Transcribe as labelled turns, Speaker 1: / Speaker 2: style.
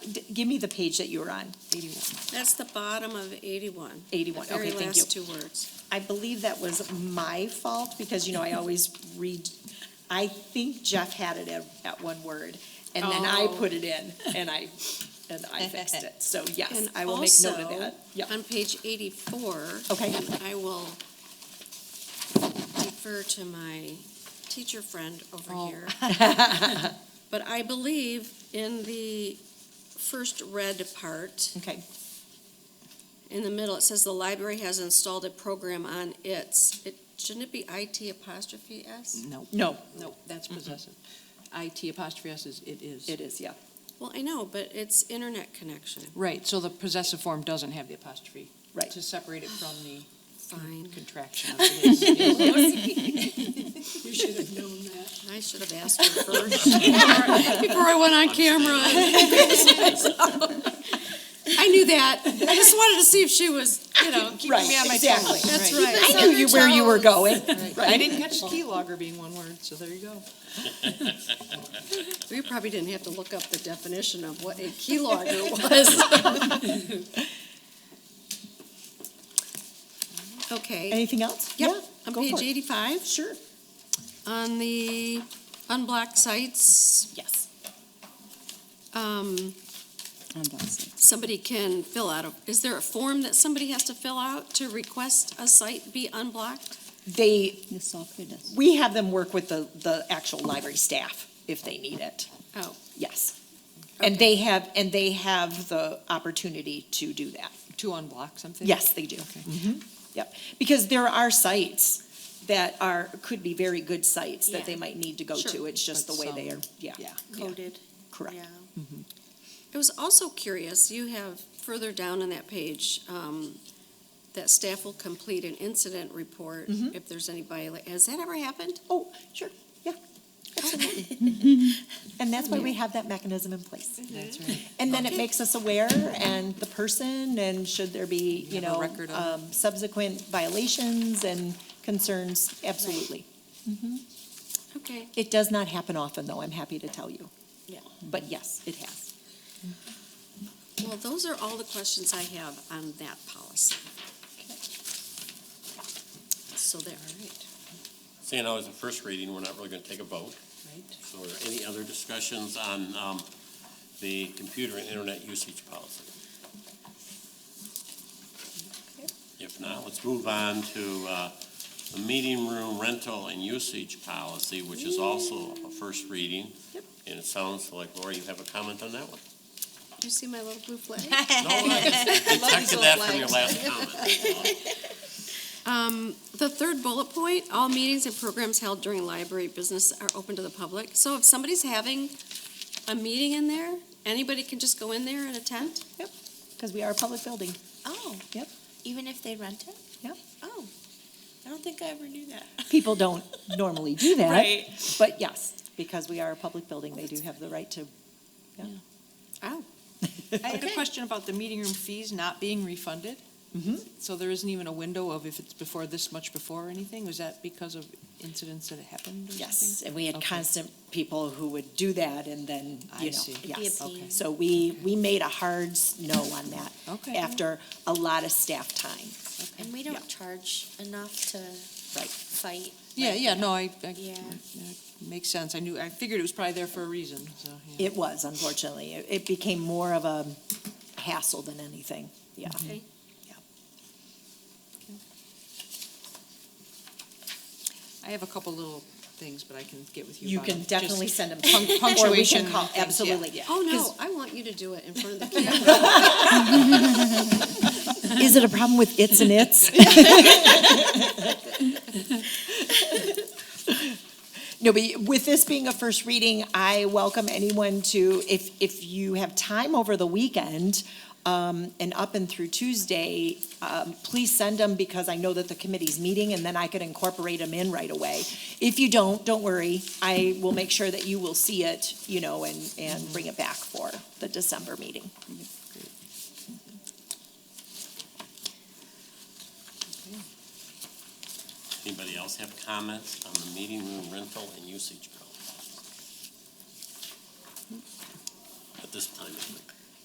Speaker 1: D- Give me the page that you were on,
Speaker 2: That's the bottom of 81. the
Speaker 1: 81, okay,
Speaker 2: Very
Speaker 1: thank you.
Speaker 2: last two words.
Speaker 1: I believe that was my fault, because, you know, I always read, I think Jeff had it at, at one word, and then I
Speaker 2: Oh.
Speaker 1: put it in, and I, and I fixed it. So, yes,
Speaker 2: And
Speaker 1: I will make note of
Speaker 2: also,
Speaker 1: that. Yep.
Speaker 2: On page 84.
Speaker 1: Okay.
Speaker 2: and I will defer to my teacher friend
Speaker 1: Oh.
Speaker 2: over here. But I believe in the first red part,
Speaker 1: Okay,
Speaker 2: in the middle, it says the library has installed a program on its, It shouldn't it be IT apostrophe
Speaker 1: Mm.
Speaker 2: S?
Speaker 3: No,
Speaker 1: no,
Speaker 3: no, that's possessive. IT apostrophe S is, it is.
Speaker 1: it is, yeah.
Speaker 2: Well, I know, but it's internet connection.
Speaker 3: Right, so the possessive form doesn't have the apostrophe.
Speaker 1: Right.
Speaker 3: To separate it from the
Speaker 2: Fine.
Speaker 3: contraction of it is. it is.
Speaker 2: You should have known that. I should have asked her first. Before I went on camera. I knew that. I just wanted to see if she was, you know, keeping me on my toes.
Speaker 1: exactly.
Speaker 2: That's
Speaker 3: Right.
Speaker 2: right.
Speaker 1: I knew you, where you were going.
Speaker 3: I didn't catch keylogger being one word, so there you go.
Speaker 2: We probably didn't have to look up the definition of what a keylogger was. Okay.
Speaker 1: Anything else?
Speaker 2: Yep,
Speaker 1: Yeah,
Speaker 2: on
Speaker 1: go
Speaker 2: page
Speaker 1: for it.
Speaker 2: eighty-five,
Speaker 1: Sure,
Speaker 2: on the unblocked sites,
Speaker 1: yes.
Speaker 2: um, somebody can fill out, a- is there a form that somebody has to fill out to request a site be unblocked?
Speaker 1: They,
Speaker 4: The software does.
Speaker 1: we have them work with the, the actual library staff if they need it.
Speaker 2: Oh,
Speaker 1: Yes. And they have, and they have the opportunity to do that.
Speaker 3: To unblock something?
Speaker 1: Yes, they do.
Speaker 3: Mm-hmm.
Speaker 1: Mm-hmm. Yep. Because there are sites that are, could be very good sites that they
Speaker 2: Yeah.
Speaker 1: might need to go to.
Speaker 2: Sure.
Speaker 1: It's just the
Speaker 3: But
Speaker 1: way they are,
Speaker 3: some-
Speaker 1: yeah.
Speaker 3: yeah.
Speaker 2: coded.
Speaker 1: Correct.
Speaker 2: Yeah. I Mm-hmm. was also curious, you have further down on that page, um, that staff will complete an incident report if there's any viola, has that ever happened?
Speaker 1: Oh, sure, yeah. Absolutely. And that's why we have that mechanism in place.
Speaker 3: That's right.
Speaker 1: And then it
Speaker 2: Okay.
Speaker 1: makes us aware and the person and should there be, you
Speaker 3: have a
Speaker 1: know,
Speaker 3: record of it.
Speaker 1: um, subsequent violations and concerns, absolutely.
Speaker 2: Okay.
Speaker 1: It does not happen often though, I'm happy to tell you.
Speaker 2: Yeah.
Speaker 1: But yes, it has.
Speaker 2: Well, those are all the questions I have on that policy. So there, all right.
Speaker 5: Seeing how it's a first reading, we're not really going to take a vote.
Speaker 3: Right.
Speaker 5: So are there any other discussions on um, the computer and internet usage policy? If not, let's move on to uh, the meeting room rental and usage policy, which is also a first reading.
Speaker 1: Yep.
Speaker 5: And it sounds like, Laura, you have a comment on that one?
Speaker 2: Do you see my little blue flag?
Speaker 5: No, I detected that from your last comment.
Speaker 2: Um, the third bullet point, all meetings and programs held during library business are open to the public. So if somebody's having a meeting in there, anybody can just go in there and attend?
Speaker 1: Because we are a public building.
Speaker 6: Oh.
Speaker 1: Yep.
Speaker 6: Even if they rent it?
Speaker 1: Yep.
Speaker 6: Oh. I don't think I ever knew that.
Speaker 1: People don't normally do that.
Speaker 6: Right.
Speaker 1: But yes, because we are a public building, they do have the right to.
Speaker 2: Oh,
Speaker 3: I had a question about the meeting room fees not being refunded.
Speaker 1: Mm-hmm.
Speaker 3: So there isn't even a window of if it's before this much before or anything? Was that because of incidents that happened or something?
Speaker 1: and we had
Speaker 3: Okay.
Speaker 1: constant people who would do that and then,
Speaker 3: I
Speaker 1: you
Speaker 3: see.
Speaker 1: know,
Speaker 3: It'd be a
Speaker 1: yes.
Speaker 3: pain. Okay.
Speaker 1: So we, we made a hard s- no on that.
Speaker 3: Okay.
Speaker 1: After a lot of staff time.
Speaker 6: And we
Speaker 1: Yeah.
Speaker 6: don't charge enough to
Speaker 1: Right.
Speaker 6: fight.
Speaker 3: Yeah,
Speaker 6: like,
Speaker 3: yeah, no, I, I,
Speaker 6: Yeah.
Speaker 3: yeah, makes sense. I knew, I figured it was probably there for a reason, so, yeah.
Speaker 1: It was, unfortunately. It- It became more of a hassle than anything, yeah.
Speaker 2: okay.
Speaker 3: I have a couple little things, but I can get with you
Speaker 1: You
Speaker 3: about
Speaker 1: can
Speaker 3: them.
Speaker 1: definitely
Speaker 3: Just
Speaker 1: send them.
Speaker 3: punc- Punctuation.
Speaker 1: call-
Speaker 3: things, yeah,
Speaker 1: absolutely.
Speaker 3: yeah.
Speaker 2: Oh, no,
Speaker 1: 'Cause-
Speaker 2: I want you to do it in front of the camera.
Speaker 1: Is it a problem with its and its? No, but with this being a first reading, I welcome anyone to, if, if you have time over the weekend, um, and up and through Tuesday, um, please send them because I know that the committee's meeting and then I could incorporate them in right away. If you don't, don't worry. I will make sure that you will see it, you know, and, and bring it back for the December meeting.
Speaker 5: Anybody else have comments on the meeting room rental and usage policy? At this time, it would be.